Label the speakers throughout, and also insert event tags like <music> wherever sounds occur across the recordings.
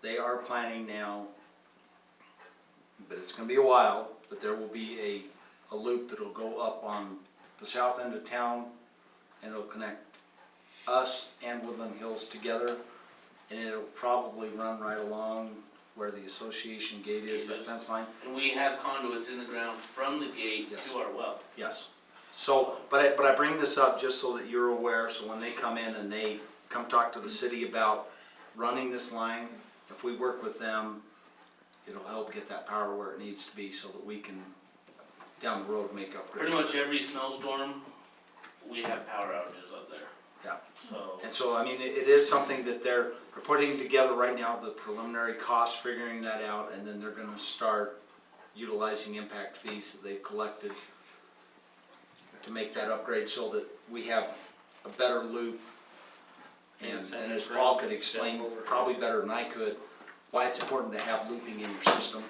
Speaker 1: they are planning now, but it's gonna be a while, but there will be a, a loop that'll go up on the south end of town, and it'll connect us and Woodland Hills together, and it'll probably run right along where the association gate is, that fence line.
Speaker 2: And we have conduits in the ground from the gate
Speaker 1: Yes.
Speaker 2: to our well.
Speaker 1: Yes. So, but I, but I bring this up just so that you're aware, so when they come in and they come talk to the city about running this line, if we work with them, it'll help get that power where it needs to be so that we can, down the road, make upgrades.
Speaker 2: Pretty much every snowstorm, we have power outages up there,
Speaker 1: Yeah.
Speaker 2: so.
Speaker 1: And so, I mean, it, it is something that they're, they're putting together right now, the preliminary cost, figuring that out, and then they're gonna start utilizing impact fees that they've collected to make that upgrade so that we have a better loop. And, and as Paul could explain, probably better than I could, why it's important to have looping in your system.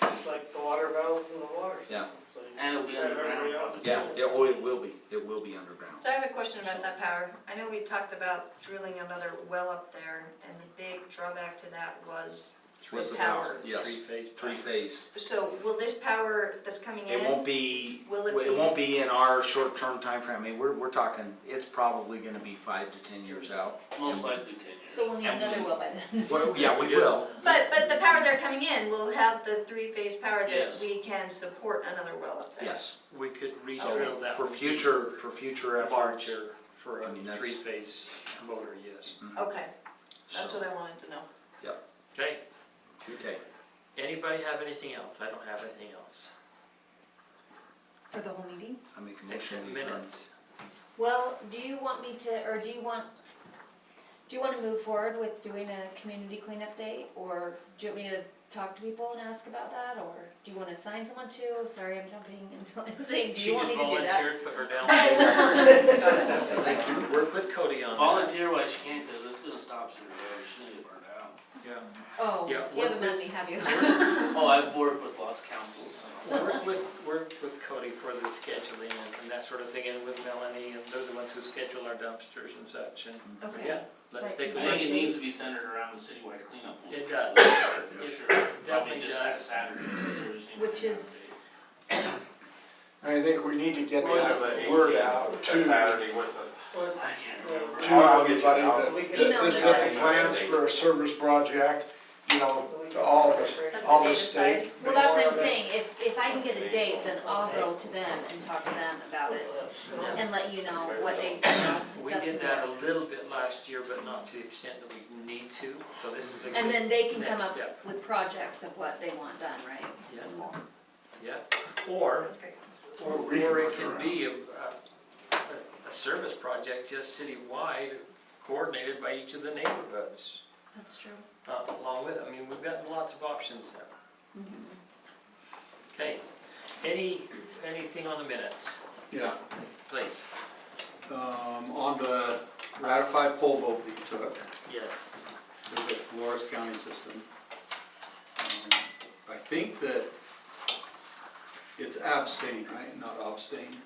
Speaker 3: It's like the water valves in the water
Speaker 1: Yeah.
Speaker 3: system. so you-
Speaker 2: And it'll be underground probably.
Speaker 1: Yeah, it, oh, it will be, it will be underground.
Speaker 4: So I have a question about that power. I know we talked about drilling another well up there, and the big drawback to that was
Speaker 1: What's
Speaker 4: the power.
Speaker 1: Yes,
Speaker 5: Three-phase.
Speaker 1: three phase.
Speaker 4: So will this power that's coming in?
Speaker 1: It won't be,
Speaker 4: Will it
Speaker 1: it won't be in our short-term timeframe, I mean, we're, we're talking, it's probably gonna be five to ten years out.
Speaker 2: Most likely ten years.
Speaker 6: So we'll need
Speaker 1: And-
Speaker 6: another well by then.
Speaker 1: Well, yeah, we will,
Speaker 4: But, but the power they're coming in will have the three-phase power that
Speaker 2: Yes.
Speaker 4: we can support another well up there.
Speaker 1: yes.
Speaker 5: We could
Speaker 1: So
Speaker 5: re-drill that.
Speaker 1: for
Speaker 5: one
Speaker 1: future, for future efforts.
Speaker 5: Larger for
Speaker 1: I
Speaker 5: a
Speaker 1: mean, that's-
Speaker 5: three-phase motor, yes.
Speaker 4: Okay, that's
Speaker 1: so,
Speaker 4: what I wanted to know.
Speaker 5: Okay,
Speaker 1: Okay,
Speaker 5: anybody have anything else? I don't have anything else.
Speaker 6: For the whole meeting?
Speaker 1: I make a motion.
Speaker 5: Except
Speaker 1: we adjourn.
Speaker 5: minutes.
Speaker 6: Well, do you want me to, or do you want, do you want to move forward with doing a community cleanup day? Or do you want me to talk to people and ask about that? Or do you want to assign someone to? Sorry, I'm jumping into, I'm saying, do
Speaker 5: She
Speaker 6: you want
Speaker 5: just
Speaker 6: me to do that?
Speaker 5: volunteered, put her
Speaker 6: I
Speaker 5: down.
Speaker 6: <laughs> will.
Speaker 1: Thank you.
Speaker 5: We'll put Cody on that.
Speaker 2: Volunteer wise, she can't, cause it's gonna stop soon, or she's gonna get burned out.
Speaker 5: Yeah.
Speaker 6: Oh,
Speaker 5: Yeah,
Speaker 6: you haven't
Speaker 5: we're-
Speaker 6: met me, have you?
Speaker 2: Oh, I've worked with lots of councils, so.
Speaker 5: Work with, work with Cody for the scheduling and- and that sort of thing, and with Melanie, and they're the ones who schedule our dumpsters and such, and,
Speaker 6: <laughs> Okay,
Speaker 5: yeah, let's
Speaker 6: Right.
Speaker 5: take a
Speaker 2: I think
Speaker 5: look.
Speaker 2: it needs to be centered around the citywide cleanup. week.
Speaker 5: It does.
Speaker 2: For sure, probably
Speaker 5: definitely
Speaker 2: just that
Speaker 5: does.
Speaker 2: Saturday. that's what we just need to
Speaker 6: which
Speaker 2: do.
Speaker 6: is,
Speaker 7: I think we need to get
Speaker 8: Well, it's
Speaker 7: that
Speaker 8: the
Speaker 7: word
Speaker 8: 18th.
Speaker 7: out to,
Speaker 8: That
Speaker 7: to
Speaker 8: Saturday was the,
Speaker 2: I can't remember.
Speaker 8: I'll
Speaker 7: everybody
Speaker 8: get you
Speaker 7: that,
Speaker 8: down.
Speaker 3: We could-
Speaker 6: Email
Speaker 7: this is
Speaker 6: them.
Speaker 7: the plans for a service project, you know, to all of us,
Speaker 4: Set the
Speaker 7: all
Speaker 4: date
Speaker 7: the
Speaker 4: aside.
Speaker 7: state.
Speaker 6: well, that's what I'm
Speaker 7: Florida.
Speaker 6: saying, if, if I can get a date, then I'll go to them and talk to them about it and let you know what they, you know,
Speaker 5: We
Speaker 6: that's
Speaker 5: did
Speaker 6: important.
Speaker 5: that a little bit last year, but not to the extent that we need to, so this is a
Speaker 6: And
Speaker 5: good,
Speaker 6: then they can come
Speaker 5: next
Speaker 6: up
Speaker 5: step.
Speaker 6: with projects of what they want done, right?
Speaker 5: Yeah. yeah. Or,
Speaker 4: That's great.
Speaker 5: or
Speaker 7: We can
Speaker 5: or it
Speaker 7: work
Speaker 5: can be a, a, a service project just citywide, coordinated by each of the neighborhoods,
Speaker 6: That's true.
Speaker 5: uh, along with, I mean, we've got lots of options there.
Speaker 6: Mm-hmm.
Speaker 5: Okay, any, anything on the minutes,
Speaker 9: Yeah,
Speaker 5: please?
Speaker 9: um, on the ratified poll vote we took
Speaker 5: Yes.
Speaker 9: for the Dolores County system. um, I think that it's abstain, right, not abstain.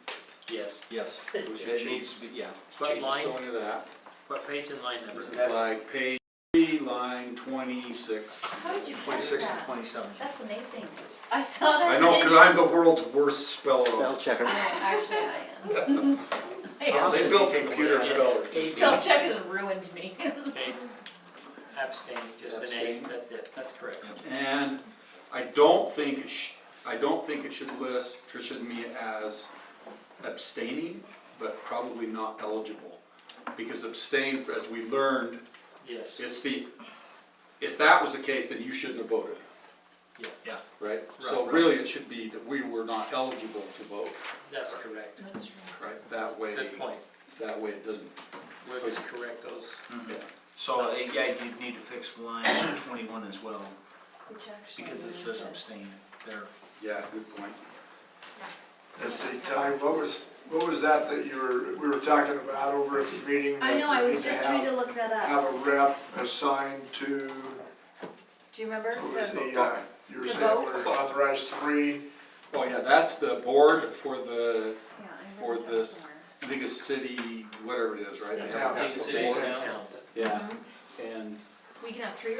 Speaker 5: Yes,
Speaker 4: <laughs>
Speaker 1: Yes, it needs to be, yeah.
Speaker 5: What
Speaker 9: Change the
Speaker 5: line?
Speaker 9: spelling of that.
Speaker 5: what page and line number?
Speaker 9: This is like page three, line twenty-six.
Speaker 6: How did you catch
Speaker 1: Twenty-six and
Speaker 6: that?
Speaker 1: twenty-seven.
Speaker 6: That's amazing. I saw that.
Speaker 7: I know,
Speaker 6: video.
Speaker 7: cause I'm the world's worst speller.
Speaker 8: Spell checker.
Speaker 6: No, Actually, I am. I am. <laughs>
Speaker 7: They built computer spellers.
Speaker 6: Spell check has ruined me.
Speaker 5: Okay, abstain, just an A,
Speaker 9: Abstain.
Speaker 5: that's it, that's correct.
Speaker 9: And I don't think, it sh- I don't think it should list Tricia and me as abstaining, but probably not eligible. Because abstain, as we learned,
Speaker 5: Yes,
Speaker 9: it's the, if that was the case, then you shouldn't have voted,
Speaker 5: yeah,
Speaker 9: right? So
Speaker 5: Right.
Speaker 9: really, it should be that we were not eligible to vote,
Speaker 5: that's correct,
Speaker 6: That's true.
Speaker 9: right? That way,
Speaker 5: good point,
Speaker 9: that way it doesn't,
Speaker 5: we'll just correct those.
Speaker 9: yeah.
Speaker 1: So, uh, yeah, you'd need to fix line twenty-one as well,
Speaker 6: Which actually
Speaker 1: because it
Speaker 6: means
Speaker 1: says
Speaker 6: that-
Speaker 1: abstain there.
Speaker 9: yeah, good point.
Speaker 7: Ty, what was, what was that that you were, we were talking about over at the meeting?
Speaker 6: I
Speaker 7: that
Speaker 6: know, I
Speaker 7: we
Speaker 6: was
Speaker 7: need
Speaker 6: just trying to
Speaker 7: have-
Speaker 6: look that
Speaker 7: Have a
Speaker 6: up.
Speaker 7: rep assigned to,
Speaker 6: Do you remember?
Speaker 7: what was
Speaker 6: The-
Speaker 7: the, uh, you were
Speaker 6: To
Speaker 7: saying
Speaker 6: vote?
Speaker 7: we're authorized three,
Speaker 9: Oh, yeah, that's the board for the,
Speaker 6: Yeah, I
Speaker 9: for
Speaker 6: wrote it down
Speaker 9: this-
Speaker 6: somewhere.
Speaker 9: I think it's city, whatever it is, right? They have
Speaker 7: Yeah.
Speaker 9: that
Speaker 2: Big cities
Speaker 9: board.
Speaker 2: now.
Speaker 9: Yeah, and
Speaker 6: We can have three